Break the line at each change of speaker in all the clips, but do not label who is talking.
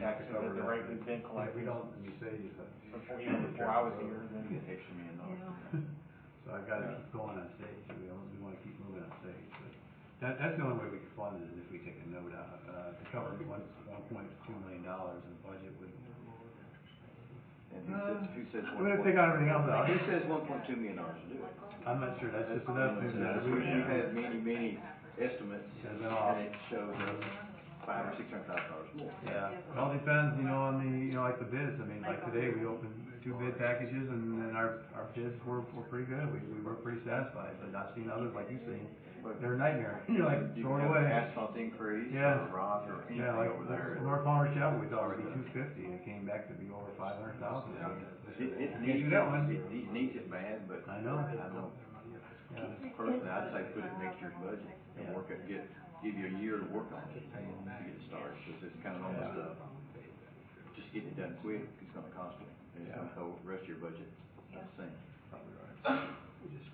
tax number.
The rate we've been
If we
collecting
don't, we save it.
before, you know, before I was here,
You
then.
get extra million dollars.
So I've gotta keep going on stage, we always, we wanna keep moving on stage, but that, that's the only way we can fund it, is if we take a note out, uh, to cover one, one point two million dollars in budget would.
And who says, who says
We're gonna
one
Uh, take
point,
out everything else out.
who says one point two million dollars to do it?
I'm not sure, that's just another thing that we,
We've had many, many estimates,
Has been off.
and it shows us five or six hundred thousand dollars more.
yeah, it all depends, you know, on the, you know, like the bids, I mean, like today, we opened two bid packages and, and our, our bids were, were pretty good, we, we were pretty satisfied, but I've seen others, like you've seen,
But
they're a nightmare, you're like,
You
throw it
can have an
away.
asphalt increase,
Yeah.
or rock, or anything
Yeah, like,
over there.
North Palmer Chapel, we thought would be two fifty, and it came back to be over five hundred thousand.
It, it
Can't
needs,
do that
it,
one.
it ne- needs it bad, but
I know.
I don't,
Yeah.
personally, I'd say put it next year's budget and work it, get, give you a year to work on it, to get it started, because it's kind of almost a, just getting it done quick, it's gonna cost you, and it's gonna hold the rest of your budget, that's the same.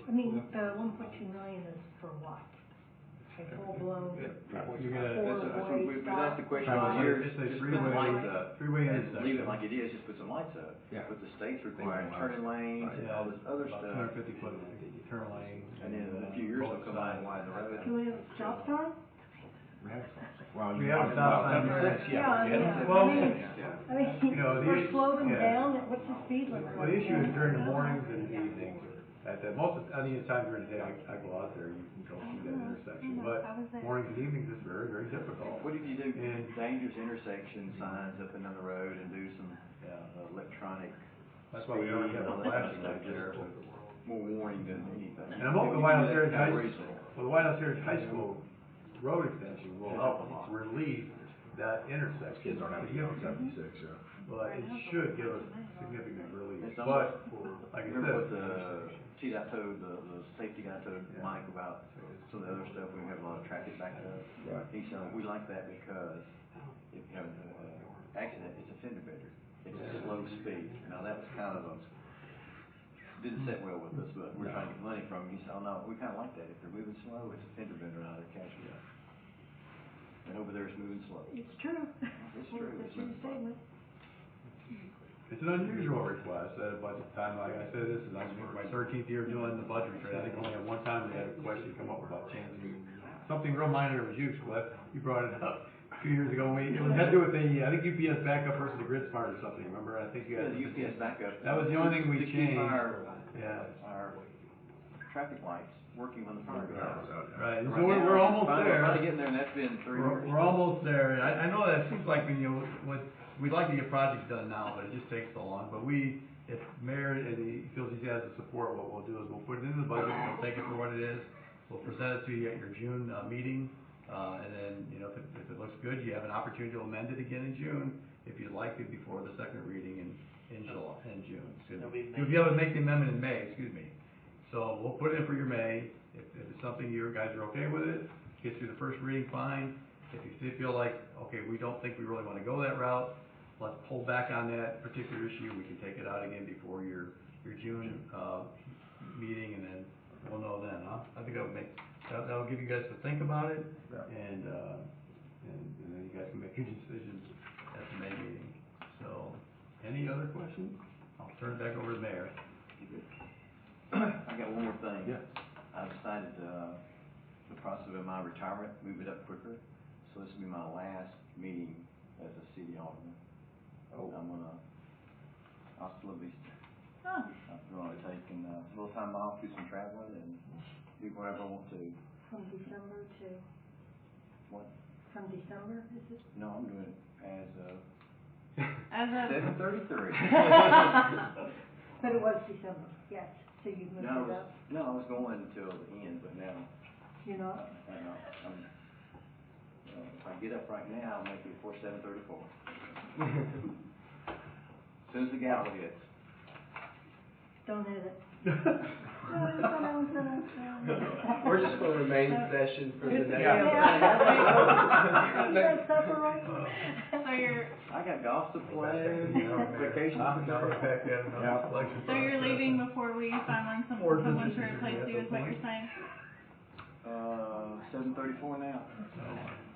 I mean, the one point two million is for what? Like full blown,
You're
four
gonna,
That's- that's what
way
we-
stop?
that's the question
Probably.
all year,
Just
just
say
put some
freeway.
lights up.
Freeway
And Leave
intersection.
it like it is, just put some lights up.
Yeah.
But the state's requiring turning lanes and all this other
about two hundred
stuff,
fifty foot turn lane.
and then in a few years, they'll come out and widen the
Do
road.
we have a stop sign?
Well,
We
you
have
have
a stop sign
about
there.
seventy-six, yeah.
Yeah, yeah.
Well-
Yeah.
I mean,
You know, the
we're
issue-
slowing
yeah.
down, what's the speed limit?
Well, the issue is during the mornings and the evenings, at the, most of, any time during the day, I, I go out there, you can go through that intersection, but mornings and evenings is very, very difficult.
What if you do
And- Mm-hmm.
dangerous intersection signs up and down the road and do some
Yeah,
uh, electronic,
that's why we already have a flashing light there.
more warning than anything?
And I'm hoping the White House Heritage
Kind of
High-
reasonable.
Well, the White House Heritage High School road extension will help relieve that intersection.
Kids aren't having to go seventy-six, yeah.
But it should give us significant relief,
It's almost-
but, like I
Remember what
said,
the TDOT told, the, the safety guy told
Yeah.
Mike about some of the other stuff, we have a lot of traffic backed up.
Right.
He said, we like that because
Oh.
if you have an uh, accident, it's a fender bender, it's a slow speed. Now, that was kind of a, didn't sit well with us, but we're trying to get money from him. He said, oh, no, we kind of like that, if they're moving slow, it's a fender bender, not a cash grab. And over there, it's moving slow.
It's true.
It's true,
That's
it's
your
moving slow.
statement.
it's an unusual request at a budget time, like I said, this is, I think, my thirteenth year doing the budget trade, I think only at one time we had a question come up about changing, something real minor was you, Cliff, you brought it up a few years ago, we, it had to do with the, I think UPS backup versus the grid smart or something, remember, I think you
Yeah,
had.
the UPS backup.
That was the only thing we
To keep
changed.
our-
Yeah,
our traffic lights working when the fire goes
That
out.
was out, yeah.
Oh, right, so
Right
we're,
now,
we're
it's
almost
finally-
there.
We're finally getting there, and that's been three
We're,
years.
we're almost there, and I, I know that seems like, when you, know, what, we'd like to get projects done now, but it just takes so long, but we, if mayor, and he feels he has the support, what we'll do is we'll put it in the budget, we'll take it for what it is, we'll present it to you at your June, uh, meeting, uh, and then, you know, if it, if it looks good, you have an opportunity to amend it again in June, if you'd like to, before the second reading in, in July, in June, excuse
It'll be
me.
May.
You'll be able to make the amendment in May, excuse me, so we'll put it in for your May, if, if it's something you guys are okay with it, get through the first reading, fine. If you still feel like, okay, we don't think we really wanna go that route, let's pull back on that particular issue, we can take it out again before your, your June, uh, meeting, and then we'll know then, huh? I think that would make, that, that'll give you guys to think about it, and, uh, and, and then you guys can make your decisions at the May meeting. So, any other questions? I'll turn it back over to Mayor.
I got one more thing.
Yeah.
I decided, uh, the process of my retirement, move it up quicker, so this will be my last meeting as a city alderman.
Oh.
I'm gonna, hasta la vista.
Huh.
I'm gonna take and, uh, a little time off, do some traveling, and do whatever I want to.
From December to,
What?
from December, is it?
No, I'm doing it as of
As
seven thirty-three.
But it was December, yes, so you moved
No, I
it
was,
up,
no, I was going until the end, but now,
you
Uh,
know?
and I'll- I'm, uh, if I get up right now, I'll make it before seven thirty-four. Soon as the gavel hits.
Don't edit. We're
We're just gonna remain in session for the next.
Yeah. That's supper right
So you're,
I got golf to play, vacation
Huh?
to go.
Back at another
Yeah.
election
so you're
process.
leaving before we find some,
Or
someone
just-
to replace you is what you're saying?
Uh, seven thirty-four now.
So,